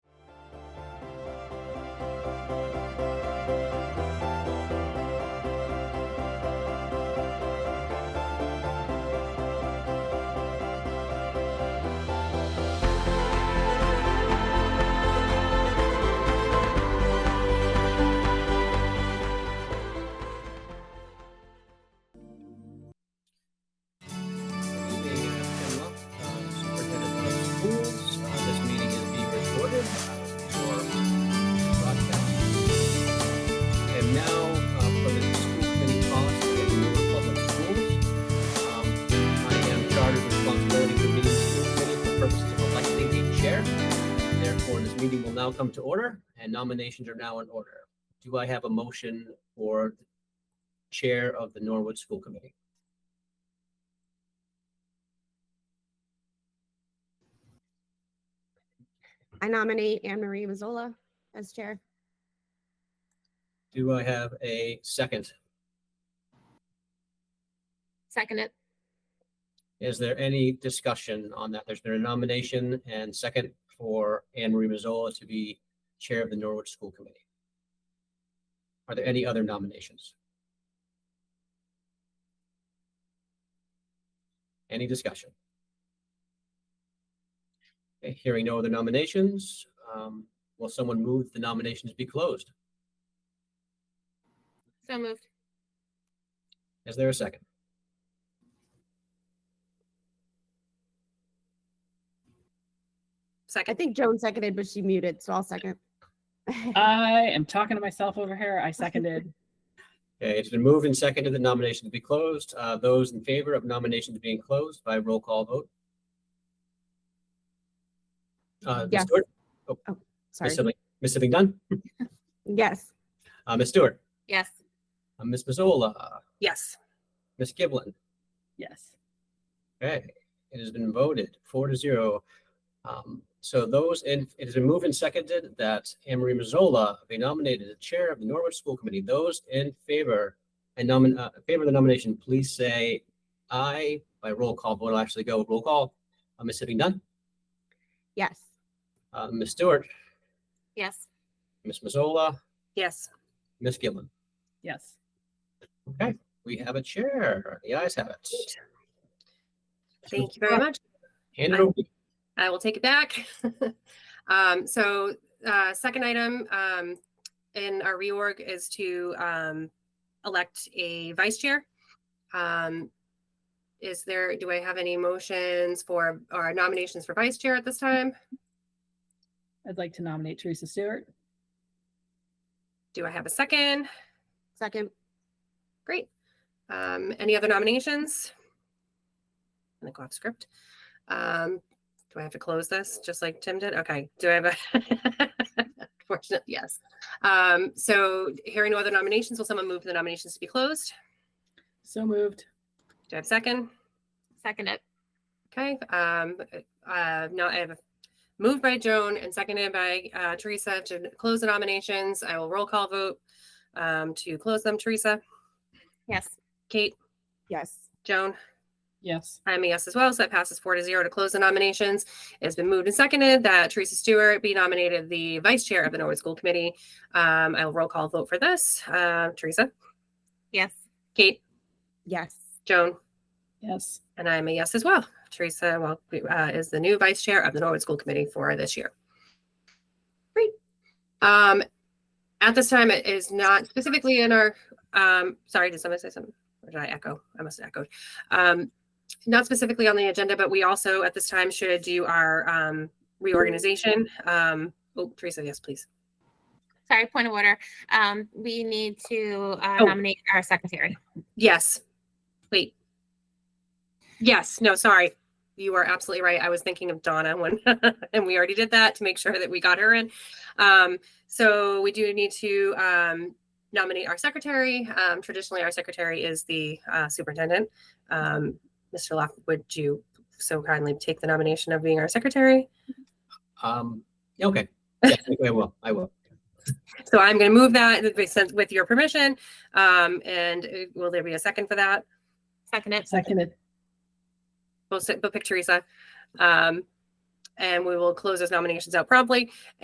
Good evening, and welcome, uh, Superintendent of Schools. Uh, This meeting is being recorded uh, for broadcast. And now, uh, for the school committee policy of the Newark Public Schools, um, I am charged with responsibility for meeting the school committee for purposes of electing a chair. Therefore, this meeting will now come to order, and nominations are now in order. Do I have a motion for the chair of the Norwood School Committee? I nominate Anne Marie Mazzola as chair. Do I have a second? Second it. Is there any discussion on that? There's been a nomination and second for Anne Marie Mazzola to be Chair of the Norwich School Committee. Are there any other nominations? Any discussion? Okay, Hearing no other nominations, um, will someone move the nominations be closed? So moved. Is there a second? I Second. think Joan seconded, but she muted, so I'll second. I am talking to myself over here. I seconded. Okay, it's been moved and seconded the nominations be closed. Uh, those in favor of nominations being closed by roll call vote? Uh, Ms. Yes. Stewart, Ms. Sorry. Sibling, Ms. Sibling Dunn, Yes, uh, Ms. Stewart, Yes. uh, Ms. Mazzola, Yes. Ms. Giblin. Yes. Okay, it has been voted four to zero. Um, so those in, it has been moved and seconded that Anne Marie Mazzola be nominated as chair of the Norwich School Committee. Those in favor and nomin, uh, favor of the nomination, please say aye by roll call. Vote will actually go roll call. Uh, Ms. Sitting Dunn, yes, uh, Ms. Stewart, Yes. Ms. Mazzola, Yes. Ms. Giblin. Yes. We have a chair. The ayes have it. Thank you very much. Hand it over. I will take it back. Um, So uh, second item um, in our reorg is to um, elect a vice chair. Um, Is there, do I have any motions for, or nominations for vice chair at this time? I'd like to nominate Teresa Stewart. Do I have a second? second, Great. Um, Any other nominations? I'm gonna go off script. Um, Do I have to close this, just like Tim did? Okay, do I have a? Fortunate, yes. Um, So hearing no other nominations, will someone move the nominations to be closed? So moved. Do I have a second? Second it. Okay, um, uh, now I have a moved by Joan and seconded by uh, Teresa to close the nominations. I will roll call vote um, to close them. Teresa, Yes. Kate, yes, Joan? Yes. I'm a yes as well, so that passes four to zero to close the nominations. It's been moved and seconded that Teresa Stewart be nominated the vice chair of the Norwood School Committee. Um, I will roll call vote for this. Uh, Teresa, Yes. Kate, yes, Joan, Yes. and I'm a yes as well. Teresa, well, uh, is the new vice chair of the Norwood School Committee for this year. Great. Um, at this time, it is not specifically in our, um, sorry, did somebody say something? Or did I echo? I must have echoed. Um, not specifically on the agenda, but we also at this time should do our, um, reorganization. Um, oh, Teresa, yes, please. Sorry, point of order. Um, we need to uh, Oh. nominate our secretary. Yes. Wait. Yes, no, sorry. You are absolutely right. I was thinking of Donna when, and we already did that to make sure that we got her in. Um, so we do need to, um, nominate our secretary. Um, traditionally, our secretary is the, uh, superintendent. Um, Mr. Lock, would you so kindly take the nomination of being our secretary? Um, yeah, okay. Yeah, I will. I will. So I'm going to move that with- with your permission. Um, and uh, will there be a second for that? Second it. Seconded. We'll sit, we'll pick Teresa. Um, and we will close those nominations out promptly.